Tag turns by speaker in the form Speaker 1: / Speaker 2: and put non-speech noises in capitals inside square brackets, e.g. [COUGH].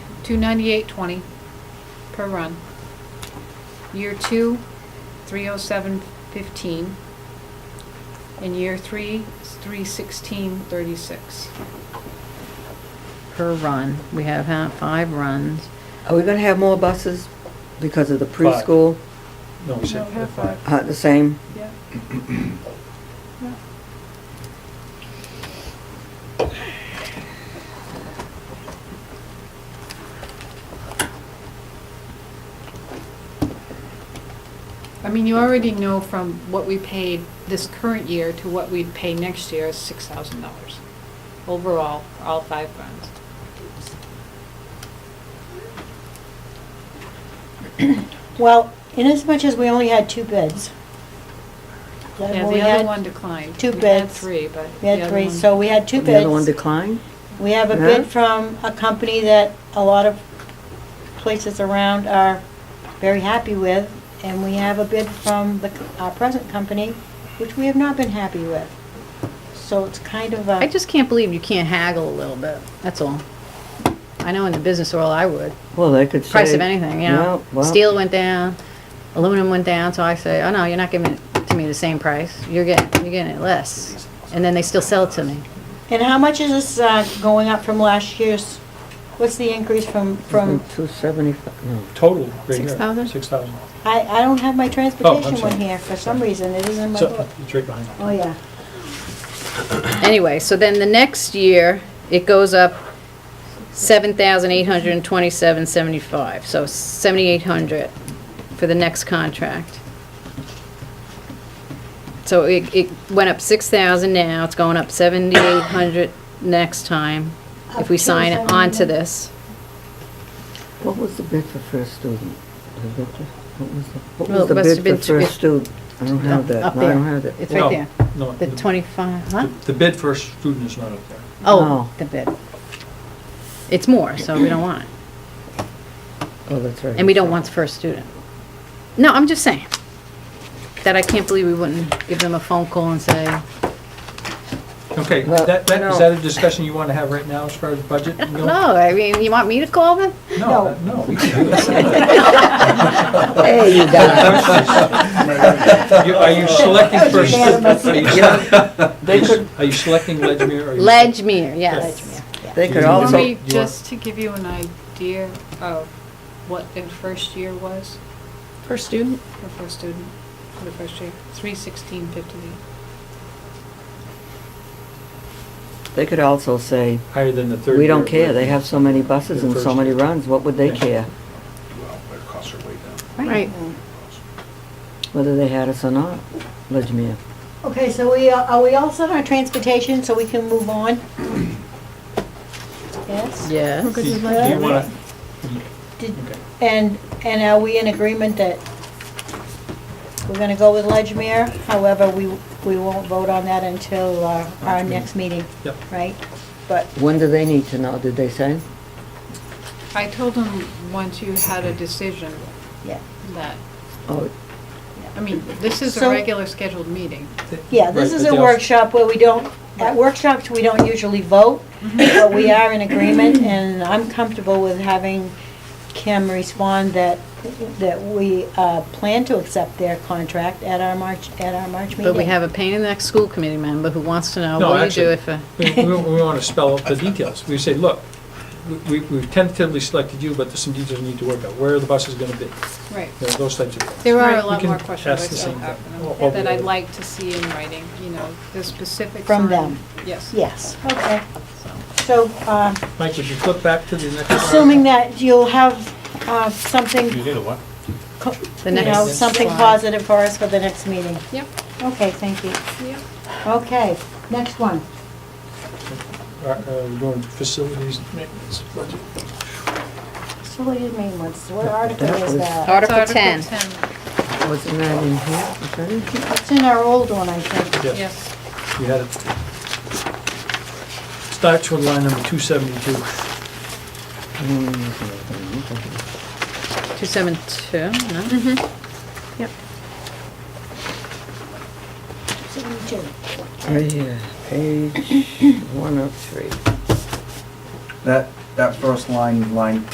Speaker 1: two ninety-eight twenty per run. Year two, three oh seven fifteen. And year three, three sixteen thirty-six.
Speaker 2: per run. We have ha- five runs.
Speaker 3: Are we gonna have more buses because of the preschool?
Speaker 4: No, we said
Speaker 1: No, half
Speaker 4: five.
Speaker 1: five.
Speaker 3: Uh, the same?
Speaker 1: Yeah. I mean, you already know from what we paid this current year to what we'd pay next year is six thousand dollars overall, for all five funds.
Speaker 5: Well, inasmuch as we only had two bids. then
Speaker 1: Yeah,
Speaker 5: we
Speaker 1: the other
Speaker 5: had-
Speaker 1: one declined.
Speaker 5: two
Speaker 1: We had
Speaker 5: bids.
Speaker 1: three, but.
Speaker 5: We
Speaker 1: the
Speaker 5: had
Speaker 1: other
Speaker 5: three,
Speaker 1: one-
Speaker 5: so we had two
Speaker 3: The other one
Speaker 5: bids.
Speaker 3: declined?
Speaker 5: We have a
Speaker 3: Yeah.
Speaker 5: bid from a company that a lot of places around are very happy with, and we have a bid from the, c- our present company, which we have not been happy with. So it's kind of a.
Speaker 2: I just can't believe you can't haggle a little bit, that's all. I know in the business world I would.
Speaker 3: Well, they could say.
Speaker 2: Price of anything, you know?
Speaker 3: Yeah, well,
Speaker 2: Steel went down, aluminum went down, so I say, oh no, you're not giving it to me the same price. You're getting, you're getting it less. And then they still sell it to me.
Speaker 5: And how much is this, uh, going up from last year's? What's the increase from, from,
Speaker 3: Two seventy-five, no.
Speaker 4: Total, right here.
Speaker 2: 6,000?
Speaker 4: Six thousand.
Speaker 3: Mm-hmm.
Speaker 5: I, I don't have my transportation
Speaker 4: Oh, sorry.
Speaker 5: one here, for some reason, it isn't in Oh my
Speaker 4: So,
Speaker 5: book.
Speaker 4: it's right behind.
Speaker 5: Oh, yeah.
Speaker 2: Anyway, so then the next year, it goes up seven thousand eight hundred and twenty-seven seventy-five, so seventy-eight hundred for the next contract. So it, it went up six thousand now, it's going up seventy-eight hundred next time, if we
Speaker 5: Up to
Speaker 2: sign
Speaker 5: 7,800.
Speaker 2: on to this.
Speaker 3: What was the bid for first student? The bid for- What was the, what
Speaker 2: Well,
Speaker 3: was
Speaker 2: it
Speaker 3: the
Speaker 2: must have been
Speaker 3: bid for
Speaker 2: two-
Speaker 3: first student? I don't have
Speaker 2: Up
Speaker 3: that, No, I
Speaker 2: there.
Speaker 3: don't have that.
Speaker 2: It's right there,
Speaker 4: No, no,
Speaker 2: the twenty-five, huh?
Speaker 4: The bid for a student is not up there.
Speaker 3: No.
Speaker 2: Oh, the bid. It's more, so we don't want it.
Speaker 3: Oh, that's right.
Speaker 2: And we don't want the first student. No, I'm just saying that I can't believe we wouldn't give them a phone call and say,
Speaker 4: Okay,
Speaker 3: Well,
Speaker 4: that, that,
Speaker 3: no.
Speaker 4: is that a discussion you want to have right now as far as budget?
Speaker 2: I don't know, I mean, you want me to call them?
Speaker 4: No, uh,
Speaker 3: [LAUGHS]
Speaker 4: no. we can do that.
Speaker 3: There you go.
Speaker 4: You- Are you selecting for, a
Speaker 5: Unanimous.
Speaker 4: stu- are you-
Speaker 3: They could,
Speaker 4: are you selecting Ledgmere? or you-
Speaker 2: Ledgmere, yeah, Ledgmere.
Speaker 3: they could
Speaker 4: You
Speaker 1: Let
Speaker 4: Also-
Speaker 1: me,
Speaker 3: also,
Speaker 4: want-
Speaker 1: just to give you an idea of what the first year was.
Speaker 2: Per student?
Speaker 1: For first student, for the first year, three sixteen fifty-eight.
Speaker 3: they could also say,
Speaker 4: Higher than the third.
Speaker 3: we don't
Speaker 4: year.
Speaker 3: care, they have so many buses and so many runs, what would they care?
Speaker 6: Well, their costs are way down.
Speaker 2: Right.
Speaker 3: Whether they had us or not, Ledgmere.
Speaker 5: Okay, so we, uh, are are we all set on transportation, so we can move on? Yes?
Speaker 2: Yes.
Speaker 4: Do do you
Speaker 5: Ledgmere.
Speaker 4: want
Speaker 5: Did-
Speaker 4: to,
Speaker 5: And, and are we in agreement that we're gonna go with Ledgmere? However, we, we won't vote on that until uh, our next meeting,
Speaker 4: yep.
Speaker 5: right? But
Speaker 3: When do they need to know, did they say?
Speaker 1: I told him once you had a decision
Speaker 5: Yeah.
Speaker 1: that,
Speaker 3: Oh,
Speaker 1: I mean, this is a
Speaker 5: So-
Speaker 1: regular scheduled meeting.
Speaker 5: Yeah, this
Speaker 4: Right,
Speaker 5: is
Speaker 4: but
Speaker 5: a
Speaker 4: they also-
Speaker 5: workshop where we don't, at workshops, we don't usually vote,
Speaker 2: Mm-hmm.
Speaker 5: but we are in agreement, and I'm comfortable with having Kim respond that, that we uh, plan to accept their contract at our March, at our March meeting.
Speaker 2: But we have a pain in the neck school committee member who wants to know,
Speaker 4: No,
Speaker 2: what do you
Speaker 4: actually-
Speaker 2: do if, a-
Speaker 4: We, we want to spell out the details. We say, look, we, we've tentatively selected you, but there's some details we need to work out. Where are the buses going to be?
Speaker 1: Right.
Speaker 4: You know, Those types of things.
Speaker 1: There are
Speaker 4: Right.
Speaker 1: a
Speaker 4: We
Speaker 1: lot
Speaker 4: can
Speaker 1: more questions I
Speaker 4: ask the
Speaker 1: still
Speaker 4: same
Speaker 1: have
Speaker 4: thing.
Speaker 1: and
Speaker 4: Or- or
Speaker 1: that I'd
Speaker 4: the-
Speaker 1: like to see in writing, you know, the specifics.
Speaker 5: From
Speaker 1: on-
Speaker 5: them.
Speaker 1: Yes.
Speaker 5: Yes, okay.
Speaker 1: So,
Speaker 5: So, uh,
Speaker 4: Mike, would you flip back to the next? one?
Speaker 5: assuming that you'll have uh, something,
Speaker 6: You did a what?
Speaker 5: co-
Speaker 2: The
Speaker 5: you know,
Speaker 2: next
Speaker 5: something
Speaker 2: slide.
Speaker 5: positive for us for the next meeting.
Speaker 1: Yep,
Speaker 5: Okay, thank you.
Speaker 1: yep.
Speaker 5: Okay, next one.
Speaker 4: Uh, uh, We're doing facilities and maintenance budget.
Speaker 5: So what do you mean, what's, what article is that?
Speaker 2: Article
Speaker 1: It's
Speaker 2: 10.
Speaker 3: wasn't that in here? Was that in here?
Speaker 5: It's in our old one, I think.
Speaker 4: Yes.
Speaker 1: Yes.
Speaker 4: You had it. Starts with line number 272.
Speaker 3: Mm, okay.
Speaker 2: 272, no?
Speaker 5: Seventy-two.
Speaker 3: Right here, Oh, page one of three.
Speaker 7: That, that first line, line